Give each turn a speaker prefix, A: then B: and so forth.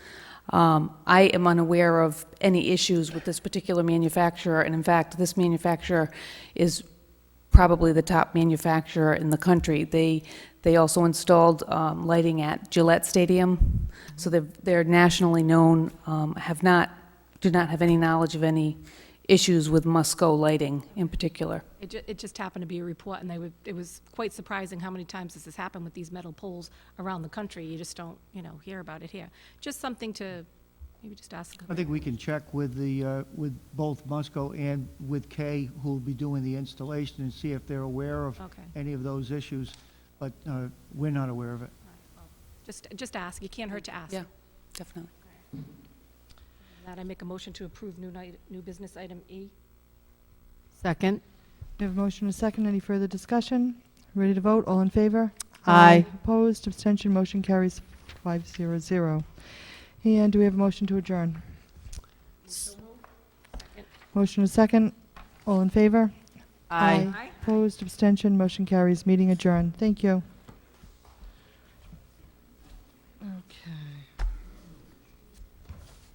A: Um, I am unaware of any issues with this particular manufacturer, and in fact, this manufacturer is probably the top manufacturer in the country. They, they also installed um, lighting at Gillette Stadium, so they're, they're nationally known, um, have not, do not have any knowledge of any issues with Musco lighting in particular.
B: It ju- it just happened to be a report, and they would, it was quite surprising how many times this has happened with these metal poles around the country. You just don't, you know, hear about it here. Just something to, maybe just ask.
C: I think we can check with the, uh, with both Musco and with Kay, who'll be doing the installation, and see if they're aware of
B: Okay.
C: any of those issues, but uh, we're not aware of it.
B: Just, just ask. It can't hurt to ask.
A: Yeah, definitely.
B: That I make a motion to approve new night, new business item E.
D: Second.
E: We have a motion and a second. Any further discussion? Ready to vote? All in favor?
D: Aye.
E: Opposed? Abstention? Motion carries five zero zero. And do we have a motion to adjourn? Motion and a second. All in favor?
D: Aye.
E: Opposed? Abstention? Motion carries. Meeting adjourned. Thank you.